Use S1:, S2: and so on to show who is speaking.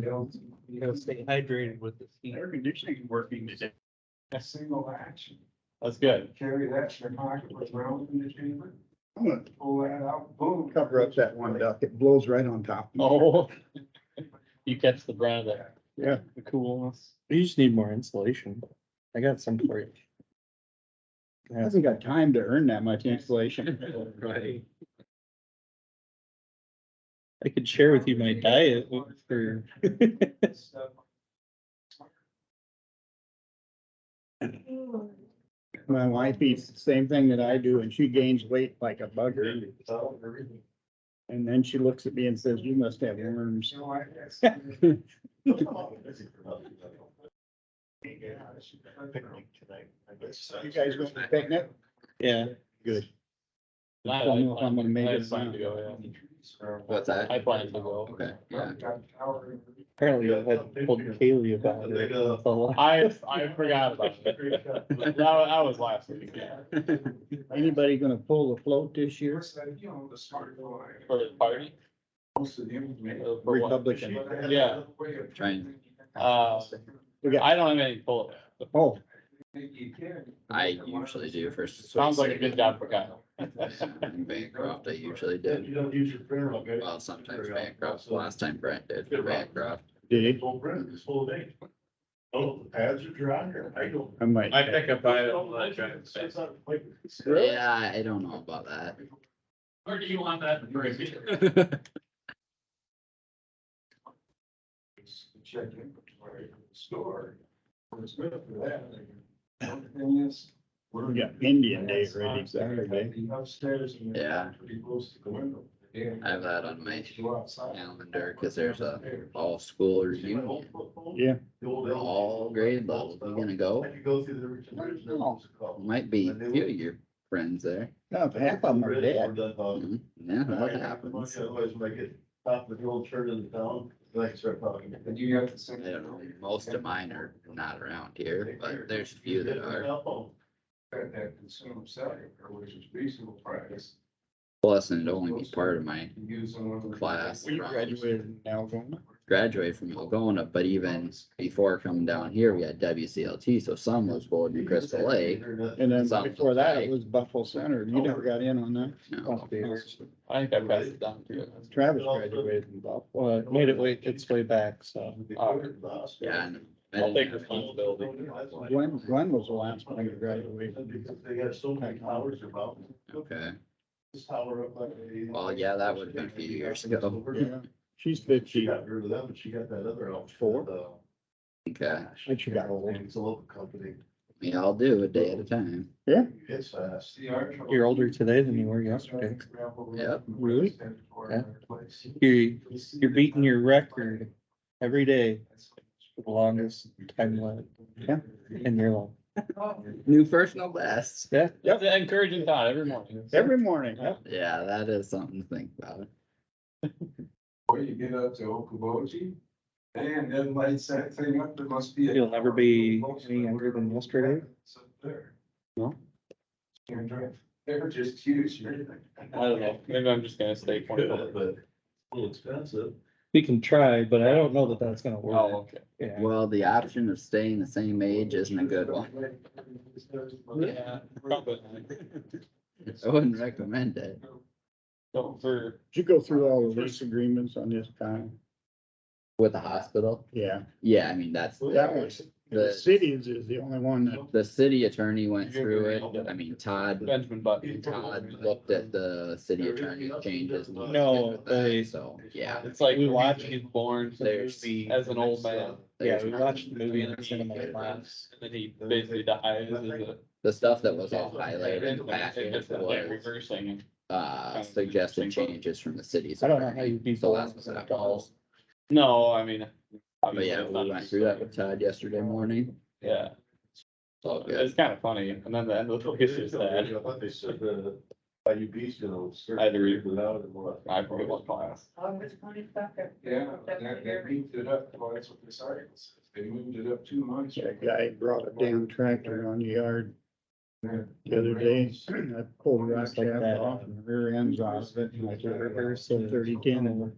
S1: don't, you know, stay hydrated with the heat.
S2: Air conditioning is working today.
S1: A single action,
S2: That's good.
S1: carry that in your pocket around in the chamber,
S3: I'm gonna
S1: pull that out, boom.
S3: cover up that one duck. It blows right on top.
S2: Oh. You catch the brand of that.
S3: Yeah.
S2: The coolness.
S4: You just need more insulation. I got some for you.
S3: I Hasn't got time to earn that much insulation.
S4: Right. I could share with you my diet for,
S3: My wife eats the same thing that I do and she gains weight like a bugger. And then she looks at me and says, you must have worms.
S1: So I guess.
S3: You guys going to picnic?
S4: yeah,
S3: Good.
S2: I-
S3: don't know if I'm gonna make
S2: I
S3: it
S2: have time
S3: around.
S2: to go, yeah.
S5: What's that?
S2: I plan to go.
S5: Okay, yeah.
S4: apparently I've had told Kaylee about it. It's a lot.
S2: I, I forgot about it. That, wa- that was last week.
S3: Anybody gonna pull the float this year?
S1: you know, the smart guy.
S2: For the party?
S1: Most of them. make-
S2: Uh, for what?
S3: Republican.
S2: Yeah.
S5: Trying.
S2: Uh,
S3: We got,
S2: I don't have any bullet.
S3: oh,
S5: I usually do for.
S2: Sounds like a good job for Kyle.
S5: In Bancroft, I usually did.
S6: You don't use your printer, okay?
S5: Well, sometimes Bancroft, The last time Brent did for Bancroft.
S3: did it?
S6: Full print, it's full of ink. Oh, the pads are dry here. I don't.
S3: I might.
S2: pick up
S6: It's not like-
S5: Yeah, I don't know about that.
S2: Or do you want that?
S1: Check inventory at the store. It's good for that. The only thing is. we're-
S3: We got Indian Day ready Saturday.
S1: The Upstairs. and
S5: Yeah.
S1: Pretty close to the window.
S5: I have that on my
S1: Go outside.
S5: calendar, cause there's a all school reunion,
S3: Yeah.
S6: The old-
S5: all
S3: Oh,
S5: grade levels. You gonna go?
S6: I could go through the Richard Bridge. there was a couple.
S5: Might be a few of your friends there.
S3: No, half of them are
S6: Bridge
S3: dead.
S6: or the, uh,
S5: Mhm. Yeah, that happens.
S6: Otherwise, when I get top of the old turn of the town, then I can start talking.
S1: And you have to say.
S5: I don't know, most of mine are not around here, but there's a few that are.
S1: That that consumer selling, which is reasonable price.
S5: Plus, and it'd only be part of my
S1: You use on one of the-
S5: Class.
S3: We graduated in Algoma.
S5: graduate from Algona, but even before coming down here, we had WCLT, so some was voted in Crystal Lake.
S3: And then
S5: Sounds
S3: before that,
S5: like-
S3: it was Buffalo Center. You never got in on that.
S5: you know.
S4: Must be yours.
S2: I think I passed it down to you.
S3: Travis graduated in Buffalo.
S4: Well, it made it way, its way back, so.
S3: uh,
S5: Yeah, and I
S2: I'll take
S5: didn't have-
S2: responsibility.
S3: Glenn, Glenn was the last one to graduate.
S6: Because they have so many towers about.
S5: Okay,
S6: This tower up like. a-
S5: well, yeah, that would have been a few years ago.
S3: Yeah, she's fifty.
S6: She got rid of them, but she got that other outfit.
S3: Four?
S6: uh,
S5: Okay,
S3: And she got old.
S6: It's a local company.
S5: we all do a day at a time.
S6: It's fast.
S1: See, our trouble-
S4: You're older today than you were yesterday.
S5: Yep.
S4: Really? You're, you're beating your record every day for the longest time limit
S3: Yeah.
S4: in your life.
S5: New first, no last.
S4: Yeah,
S2: That's an encouraging thought every morning.
S3: Every morning. huh?
S5: Yeah, that is something to think about.
S1: Or you get up to Okoboji, and then lights that thing up, there must be. a-
S4: You'll never be any younger than yesterday.
S1: It's up there.
S4: No?
S1: You're dr- They're just huge.
S2: I don't know, maybe I'm just gonna stay
S6: Good,
S2: twenty-four.
S6: but a little expensive.
S4: we can try, but I don't know that that's gonna
S2: Oh,
S4: work.
S2: okay.
S4: Yeah,
S5: Well, the option of staying the same age isn't a good one.
S2: Yeah, probably.
S5: I wouldn't recommend it.
S2: So for,
S3: Did you go through all the lease agreements on this time?
S5: With the hospital?
S3: Yeah,
S5: Yeah, I mean, that's,
S3: that was, the cities is the only one that,
S5: the city attorney went through it. I mean, Todd
S2: Benjamin Button.
S5: Todd looked at the city attorney changes. and was
S4: No,
S5: good with that,
S4: they-
S5: So, yeah.
S2: It's like
S4: We
S2: we
S4: watched-
S2: watched his born
S5: There's-
S2: as an old
S6: uh,
S2: man.
S4: yeah,
S5: there's
S4: we watched the movie in the cinema last.
S2: And then he basically dies as a.
S5: The stuff that was all highlighted in the back
S2: It's like
S5: was,
S2: reversing.
S5: uh, suggested changes from the cities.
S4: I don't know how you'd be.
S5: So last was
S4: born.
S5: at all.
S2: No, I mean.
S5: But yeah, we went through that with Todd yesterday morning.
S2: Yeah,
S5: It's all good.
S2: it's kind of funny. And then the end of the book is just
S6: I
S2: sad.
S6: thought they said the IUP's gonna. start
S2: I had to read.
S6: it out and what.
S2: I forget what class.
S1: Yeah, that, that beat it up, well, that's what this article says, they moved it up two months.
S3: that guy brought a damn tractor on the yard the other day. I pulled a rock shaft off and the rear ends off it. and I said, "Reverse the thirty ten over.